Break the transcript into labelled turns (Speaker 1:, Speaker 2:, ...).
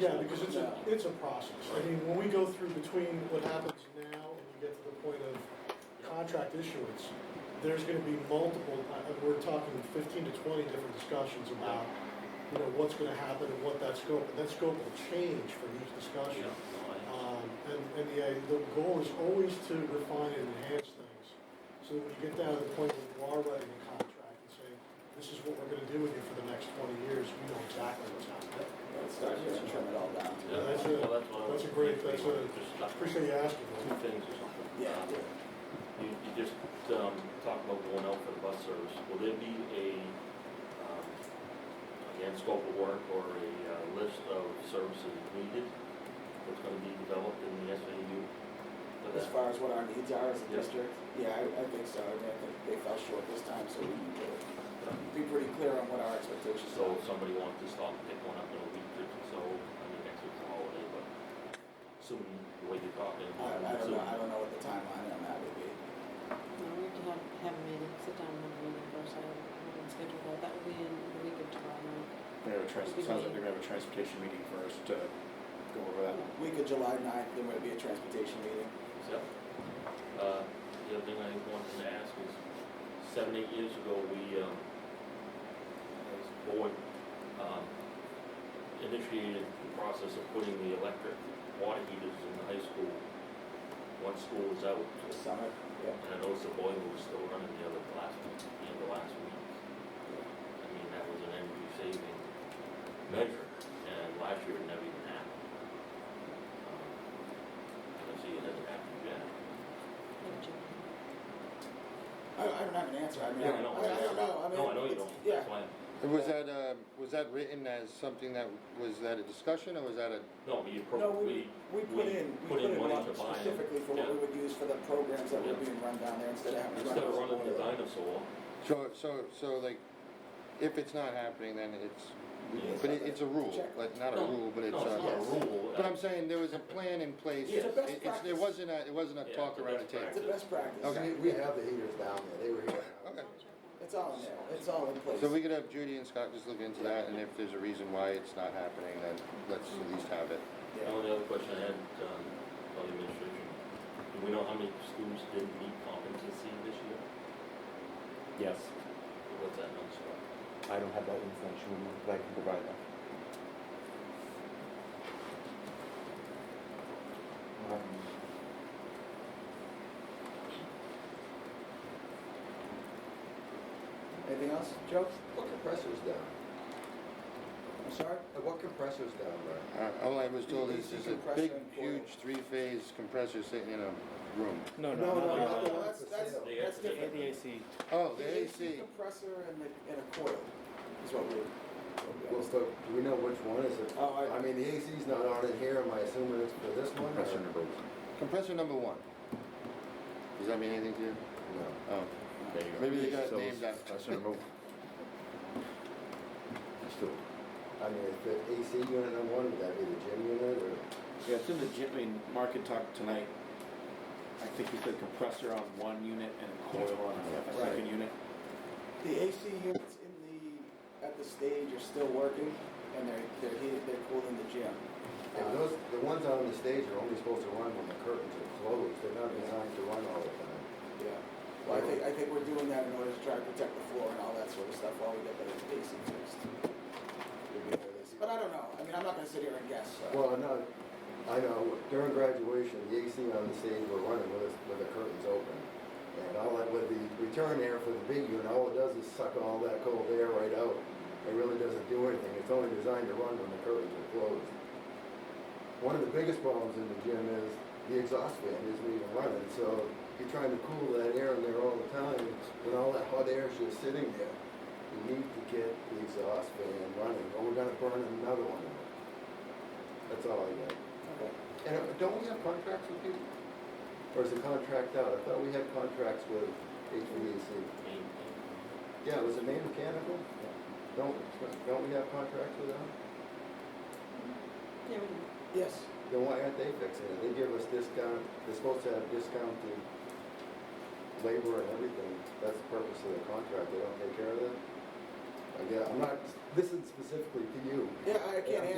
Speaker 1: Yeah, because it's a, it's a process. I mean, when we go through between what happens now and you get to the point of contract issuance, there's gonna be multiple, I- I- we're talking fifteen to twenty different discussions about, you know, what's gonna happen and what that scope, and that scope will change for each discussion. Um, and, and the, uh, the goal is always to refine and enhance things. So that when you get down to the point where you are writing a contract and saying, this is what we're gonna do with you for the next twenty years, we know exactly what's happening.
Speaker 2: Let's start here and trim it all down.
Speaker 1: Yeah, that's a- that's a great- that's a- Appreciate you asking.
Speaker 3: Two things or something.
Speaker 2: Yeah,
Speaker 3: Um,
Speaker 2: yeah.
Speaker 3: You, you just, um, talked about going out for the bus service. Will there be a, um, again, scope of work or a uh, list of services needed that's gonna be developed in the SAU? for
Speaker 2: As
Speaker 3: that?
Speaker 2: far as what our needs are as a
Speaker 3: Yeah.
Speaker 2: district, yeah, I, I think so. I mean, I think they fell short this time, so we need to be pretty clear on what our expectations
Speaker 3: So
Speaker 2: are.
Speaker 3: if somebody wants to stop and pick one up in a week or so, I mean, next week's a holiday, but soon, the way you're talking.
Speaker 2: I, I don't know,
Speaker 3: soon.
Speaker 2: I don't know what the timeline on that would be.
Speaker 4: No, we can have, have a meeting, sit down and have a meeting first, I haven't scheduled that, that will be in the week of July night.
Speaker 5: We're gonna have a trans, it sounds like they're gonna have a transportation meeting first to go over that.
Speaker 2: Week of July ninth, there might be a transportation meeting.
Speaker 3: Yep. Uh, the other thing I wanted to ask is, seven, eight years ago, we, um, as a board, um, initiated the process of putting the electric water heaters in the high school. One school was out,
Speaker 2: The summit, yeah.
Speaker 3: and I noticed the boiler was still running the other last, the end of last week. I mean, that was an energy saving measure, and last year it never even happened. Um, I don't see it hasn't happened yet.
Speaker 2: I, I don't have an answer. I mean, I
Speaker 3: Yeah, I
Speaker 2: don't
Speaker 3: know.
Speaker 2: I don't know. I mean.
Speaker 3: No, I know you
Speaker 2: it's-
Speaker 3: don't,
Speaker 2: Yeah,
Speaker 3: that's why,
Speaker 6: And was that, uh, was that written as something that, was that a discussion, or was that a,
Speaker 3: no, we
Speaker 2: No,
Speaker 3: appropriately,
Speaker 2: we put in, we put in
Speaker 3: money
Speaker 2: one
Speaker 3: to buy it.
Speaker 2: specifically for what
Speaker 3: Yeah.
Speaker 2: we would use for the programs that were
Speaker 3: Yeah.
Speaker 2: being run down there instead of having to run.
Speaker 3: instead of
Speaker 2: those
Speaker 3: running the
Speaker 2: boiler.
Speaker 3: dinosaur,
Speaker 6: so, so, so like, if it's not happening, then
Speaker 3: Yeah.
Speaker 6: it's, but it- it's a rule,
Speaker 2: Check.
Speaker 6: like, not a
Speaker 3: No,
Speaker 6: rule, but it's,
Speaker 3: no, it's not a
Speaker 6: uh,
Speaker 3: rule.
Speaker 6: but I'm saying there was a plan in place.
Speaker 3: It's a
Speaker 2: best
Speaker 6: It-
Speaker 2: practice.
Speaker 6: It wasn't a, it wasn't a
Speaker 3: Yeah,
Speaker 6: talk
Speaker 3: it's a
Speaker 6: around a
Speaker 3: best
Speaker 6: table.
Speaker 2: It's a best practice.
Speaker 6: Okay.
Speaker 7: We, we have the heaters down there, they were here.
Speaker 6: Okay.
Speaker 2: It's all in there, it's all in place.
Speaker 6: So we could have Judy and Scott just look into that, and if there's a reason why it's not happening, then let's at least have it.
Speaker 2: Yeah.
Speaker 3: The only other question I had, um, about the administration, do we know how many schools didn't meet competency this year?
Speaker 5: Yes,
Speaker 3: What's that number?
Speaker 5: I don't have that information, with me, but I can provide that. Um,
Speaker 7: Anything else, Joe? What compressor's down?
Speaker 2: I'm sorry?
Speaker 7: Uh, What compressor's down there?
Speaker 6: Uh, All I was told is, there's a big,
Speaker 2: Decompressor and boil.
Speaker 6: huge three-phase compressor sitting in a room.
Speaker 5: No,
Speaker 7: No, no,
Speaker 5: no, not
Speaker 7: no,
Speaker 5: like
Speaker 7: no,
Speaker 5: that.
Speaker 2: that's, that's,
Speaker 3: They
Speaker 2: that's
Speaker 3: have to
Speaker 2: different.
Speaker 3: take
Speaker 5: The AC,
Speaker 6: Oh,
Speaker 2: The
Speaker 6: the AC.
Speaker 2: Compressor and the, and a coil is what we.
Speaker 7: Well, so, do we know which one is it?
Speaker 2: Oh, I-
Speaker 7: I mean, the AC's not on in here, am I assuming it's for this one? or-
Speaker 5: compressor number one.
Speaker 6: Compressor number one. Does that mean anything to you?
Speaker 7: No.
Speaker 6: Oh,
Speaker 5: There you go.
Speaker 6: Maybe they got it
Speaker 5: So,
Speaker 6: named after-
Speaker 5: Compressor number one. That's the-
Speaker 7: I mean, is the AC unit number one, would that be the gym unit or?
Speaker 5: Yeah, it's in the gym, I mean, Mark had talked tonight, I think he said compressor on one unit and a coil on a
Speaker 7: Right.
Speaker 5: second unit.
Speaker 2: The AC units in the, at the stage are still working and they're, they're heated, they're cooled in the gym. Um,
Speaker 7: And those, the ones on the stage are only supposed to run when the curtains are closed, they're not designed to run all the time.
Speaker 2: Yeah. Well, I think, I think we're doing that in order to try to protect the floor and all that sort of stuff while we get that AC fixed. But I don't know, I mean, I'm not gonna sit here and guess, so.
Speaker 7: Well, I know, I know, during graduation, the AC on the stage were running with, us- with the curtains open. And all that, with the return air for the big unit, all it does is suck all that cold air right out. It really doesn't do anything, it's only designed to run when the curtains are closed. One of the biggest problems in the gym is the exhaust fan isn't even running, so you're trying to cool that air in there all the time, and all that hot air is just sitting there. You need to get the exhaust fan running, or we're gonna burn another one out. That's all I got.
Speaker 2: Okay.
Speaker 7: And uh, don't we have contracts with people? Or is the contract out? I thought we had contracts with HVAC.
Speaker 3: I mean,
Speaker 7: Yeah, was it Maine Mechanical? Don't, don't we have contracts with them?
Speaker 4: Yeah, we can.
Speaker 2: Yes,
Speaker 7: Then why aren't they fixing it? They give us discount, they're supposed to have discounted labor and everything. That's the purpose of the contract. They don't take care of that? I guess, I'm not, this is specifically to you.
Speaker 2: yeah, I can't
Speaker 7: Yeah.